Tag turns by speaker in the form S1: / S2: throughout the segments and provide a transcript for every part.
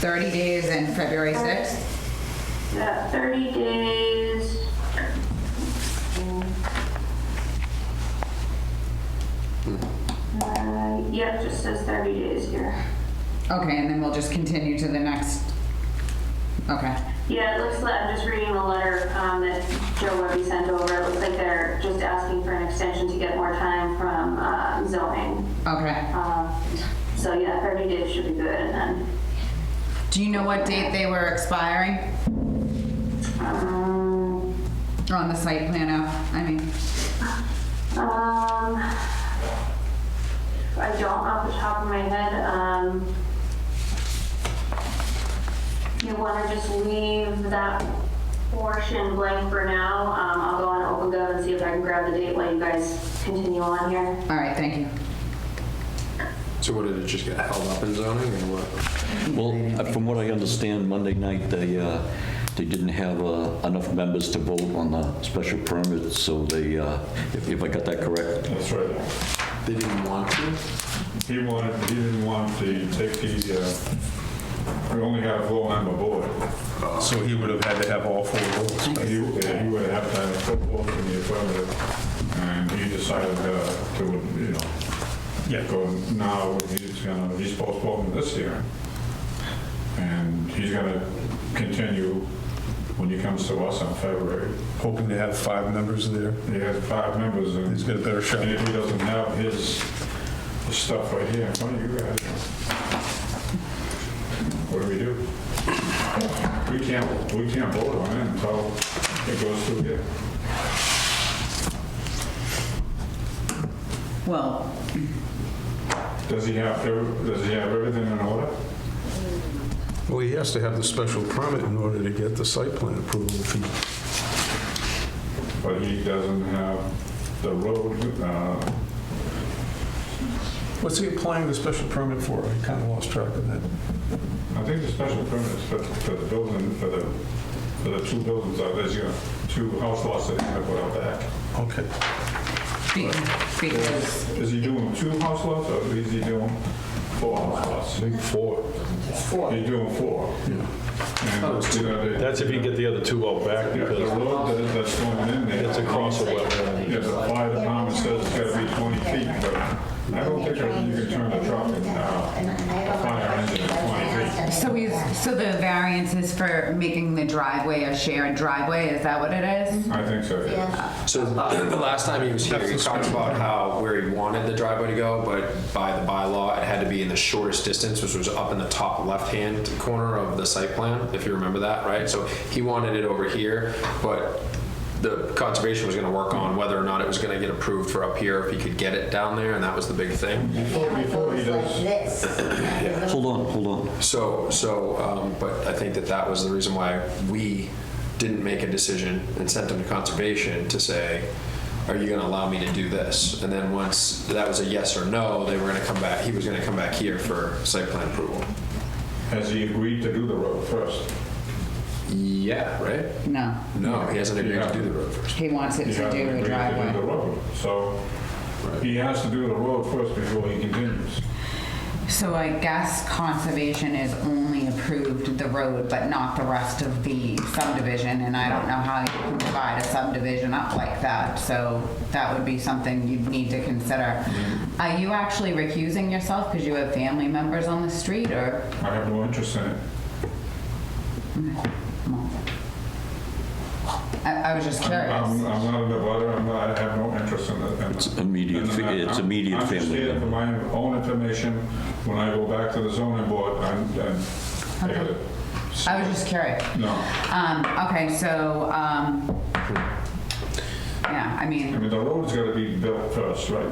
S1: 30 days and February 6th?
S2: Yeah, 30 Uh, days. Uh, Yep, just says 30 days here.
S1: Okay, and then we'll just continue to the next, okay.
S2: Yeah, it looks like, I'm just reading the letter um, that Joe Webby sent over. It looks like they're just asking for an extension to get more time from uh, zoning.
S1: Okay.
S2: Um, So yeah, 30 days should be good, and then,
S1: Do you know what date they were expiring
S2: um,
S1: Or on the site plan app? I mean,
S2: Um, I don't off the top of my head, um, you wanna just leave that portion blank for now, um, I'll go on OpenGov and see if I can grab the date while you guys continue on here.
S1: all right, thank you.
S3: So what, did it just get held up in zoning or what?
S4: Well, uh, from what I understand, Monday night, they, uh, they didn't have uh, enough members to vote on the special permit, so they, uh, if if I got that correct.
S5: That's right.
S3: They didn't want to?
S5: He wanted, he didn't want to take the, uh, we only have a four-member board. So he would have had to have all four votes. He would have to have four votes in the affirmative, and he decided uh, to, you know, go now, he's gonna, he's postponing this hearing. And he's gonna continue when he comes to us in February.
S6: hoping to have five members there.
S5: He has five members, and
S6: He's got a better shot.
S5: And if he doesn't have his stuff right here in front of you guys, what do we do? We can't, we can't vote on it until it goes through here.
S1: Well,
S5: Does he have, ev- does he have everything in order?
S6: Well, he has to have the special permit in order to get the site plan approval. If he-
S5: But he doesn't have the road, uh,
S6: What's he applying the special permit for? I kind of lost track of that.
S5: I think the special permits for, for the building, for the, for the two buildings out there, you know, two house lots that he's gonna put out back.
S6: Okay.
S1: be- because,
S5: Is he doing two house lots or is he doing four house lots? I think four. Four. He's doing four. Yeah.
S7: That's if you get the other two out back,
S5: The
S7: because
S5: road that- that's going in there.
S7: it's across a wetland.
S5: Yeah, the fire department says it's gotta be 20 feet, but I don't think that you can turn the truck and, uh, a fire engine at 20 feet.
S1: so we, so the variance is for making the driveway a shared driveway, is that what it is?
S5: I think so, yeah.
S3: So the last time he was here, he talked about how where he wanted the driveway to go, but by the bylaw, it had to be in the shortest distance, which was up in the top left-hand corner of the site plan, if you remember that, right? So he wanted it over here, but the conservation was gonna work on whether or not it was gonna get approved for up here, if he could get it down there, and that was the big thing.
S5: Before, before he does,
S4: Hold on, hold on.
S3: So, so, um, but I think that that was the reason why we didn't make a decision and sent them to conservation to say, are you gonna allow me to do this? And then once that was a yes or no, they were gonna come back, he was gonna come back here for site plan approval.
S5: has he agreed to do the road first?
S3: Yeah, right?
S1: No,
S3: No, he hasn't agreed to do the road first.
S1: he wants it
S5: He
S1: to
S5: has
S1: do
S5: to
S1: a
S5: agree to do the
S1: driveway.
S5: road, so he has to do the road first before he continues.
S1: So I guess conservation is only approved the road, but not the rest of the subdivision, and I don't know how you can divide a subdivision up like that, so that would be something you'd need to consider.
S5: Mm-hmm.
S1: Are you actually recusing yourself because you have family members on the street, or?
S5: I have no interest in it.
S1: I, I was just
S5: I'm,
S1: curious.
S5: I'm not a divider, I'm not, I have no interest in the. in-
S4: It's immediate
S5: in
S4: fa-
S5: that.
S4: it's
S5: I'm-
S4: immediate
S5: I'm just
S4: family
S5: here
S4: member.
S5: for my own information, when I go back to the zoning board, I'm, I'm, I gotta-
S1: I was just curious.
S5: no,
S1: Um, okay, so, um, yeah, I
S5: I
S1: mean,
S5: mean, the road's gotta be built first, right?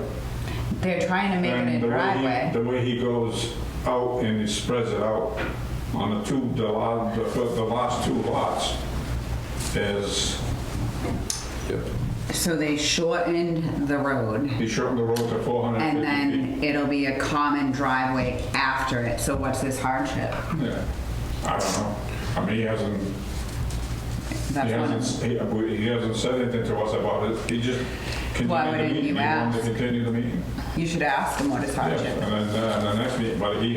S1: they're trying to make
S5: And
S1: it
S5: the
S1: a
S5: way he-
S1: driveway.
S5: The way he goes out and he spreads it out on the two, the la- the fir- the last two lots is,
S1: So they shortened the road.
S5: he shortened the road to 450 feet.
S1: And then it'll be a common driveway after it, so what's this hardship?
S5: Yeah, I don't know, I mean, he hasn't, He
S1: That's one of-
S5: hasn't, he- we- he hasn't said anything to us about it, he just
S1: Why
S5: continued the
S1: wouldn't
S5: meeting.
S1: you
S5: He wanted
S1: ask?
S5: to continue the meeting.
S1: You should ask them what is
S5: Yes,
S1: hardship.
S5: and then, uh, the next meeting, but he